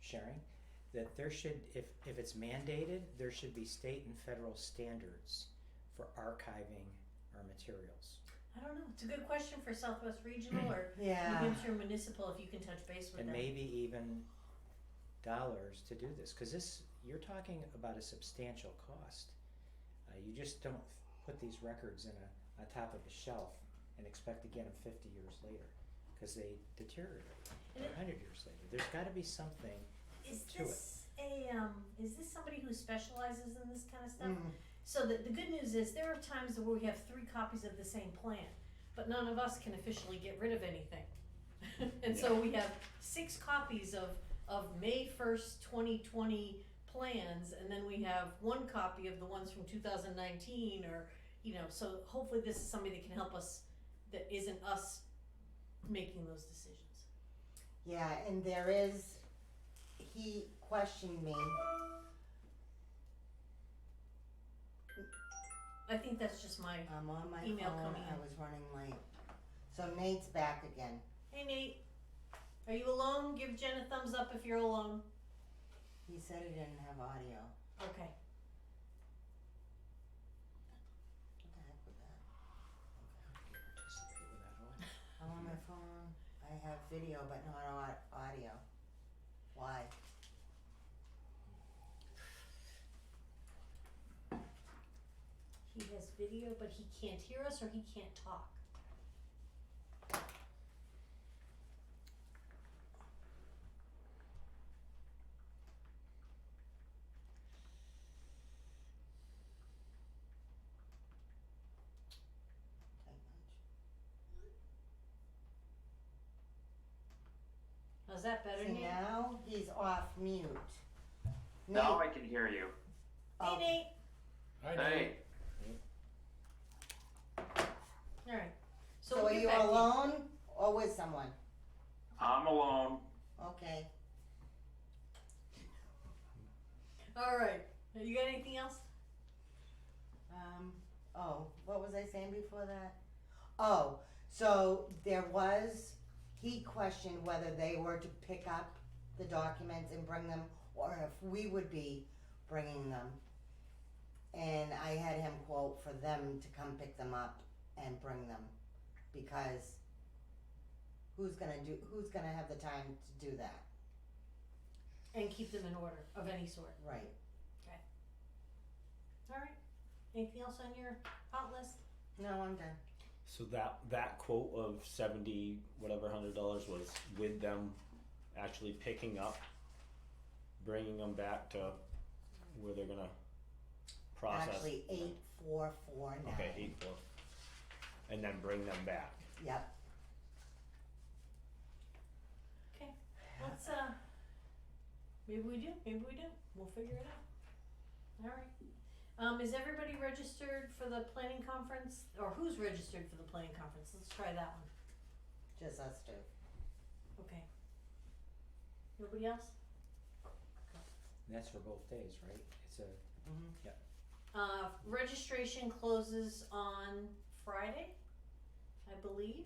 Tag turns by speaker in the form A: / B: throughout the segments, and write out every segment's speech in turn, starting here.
A: sharing, that there should, if, if it's mandated, there should be state and federal standards for archiving our materials.
B: I don't know, it's a good question for Southwest Regional or New
C: Yeah.
B: Hampshire Municipal, if you can touch base with
A: And
B: them.
A: maybe even dollars to do this, cause this, you're talking about a substantial cost. Uh, you just don't put these records in a, on top of a shelf and expect to get them fifty years later, cause they deteriorate,
B: And
A: or
B: it-
A: hundred years later, there's gotta be something,
B: Is
A: to it.
B: this a, um, is this somebody who specializes in this kind of stuff?
C: Mm.
B: So the, the good news is there are times where we have three copies of the same plan, but none of us can officially get rid of anything. and so we have six copies of, of May 1st, 2020 plans, and then we have one copy of the ones from 2019 or, you know, so hopefully this is somebody that can help us that isn't us making those decisions.
C: Yeah, and there is, he questioned me.
B: I think that's just my,
C: I'm on my
B: Email
C: phone.
B: coming
C: I
B: in.
C: was running late. So Nate's back again.
B: hey Nate, are you alone? Give Jen a thumbs up if you're alone.
C: He said he didn't have audio.
B: Okay.
C: What the heck was that?
A: participate without audio.
C: I'm on my phone. I have video, but not au- audio. Why?
B: He has video, but he can't hear us or he can't talk.
C: Tight bunch.
B: How's that better,
C: See,
B: Nate?
C: now he's off mute.
D: Now
C: Nate,
D: I can hear you.
C: oh,
B: Hey,
E: Hi,
D: Hey,
B: Nate. All right. So,
C: so
B: we'll
C: are
B: get
C: you
B: back to
C: alone or with someone?
D: I'm alone.
C: Okay.
B: All right. You got anything else?
C: Um, oh, what was I saying before that? Oh, so there was, he questioned whether they were to pick up the documents and bring them or if we would be bringing them. And I had him quote for them to come pick them up and bring them because who's gonna do, who's gonna have the time to do that?
B: And keep them in order of any sort.
C: Right.
B: All right. Anything else on your hot list?
C: No, I'm done.
E: So that that quote of seventy whatever hundred dollars was with them actually picking up, bringing them back to where they're gonna process.
C: Actually, eight, four, four, nine.
E: Okay, eight four, and then bring them back.
C: Yep.
B: Let's, uh, maybe we do, maybe we don't. We'll figure it out. All right. Um, is everybody registered for the planning conference? Or who's registered for the planning conference? Let's try that one.
C: Just us two.
B: Okay. Nobody else?
A: And that's for both days, right? It's a,
C: Mm-hmm.
B: Uh, registration closes on Friday, I believe.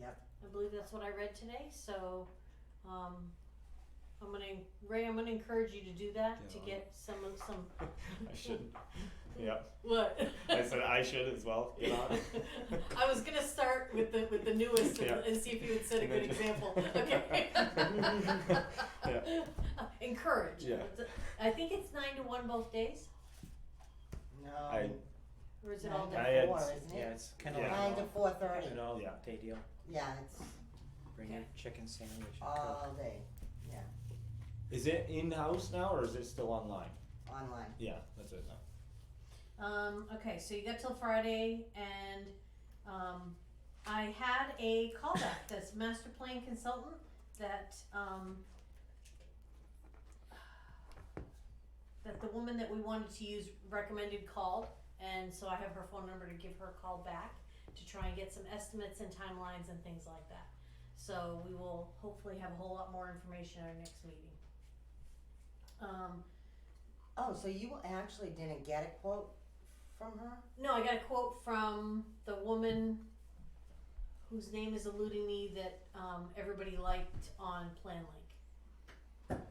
C: Yep.
B: I believe that's what I read today, so, um, I'm gonna, Ray, I'm gonna encourage you to do that, to
E: Yeah.
B: get some of, some,
E: I should. Yeah,
B: what?
E: I said I should as well. You know.
B: I was gonna start with the, with the newest and,
E: Yeah.
B: and see if you would set a
E: And then
B: good
E: just-
B: example, okay?
E: Yeah.
B: Encourage.
E: Yeah.
B: I think it's nine to one both days,
C: No.
E: I
B: or is it all
C: Nine
B: day?
E: I had-
C: to four, isn't
A: yeah,
C: it?
A: it's kind of
E: Yeah.
C: Nine
A: like
C: to four thirty.
A: an all
E: Yeah.
A: day deal.
C: Yeah, it's
A: Bring your chicken sandwich and Coke.
C: all day
E: is it in house now or is it still online?
C: online.
E: Yeah, that's it now.
B: Um, okay, so you got till Friday, and um, I had a callback. That's master plan consultant. That um, that the woman that we wanted to use recommended called, and so I have her phone number to give her a call back to try and get some estimates and timelines and things like that. So we will hopefully have a whole lot more information at our next meeting. Um,
C: Oh, so you actually didn't get a quote from her?
B: No, I got a quote from the woman whose name is eluding me that um, everybody liked on PlanLink.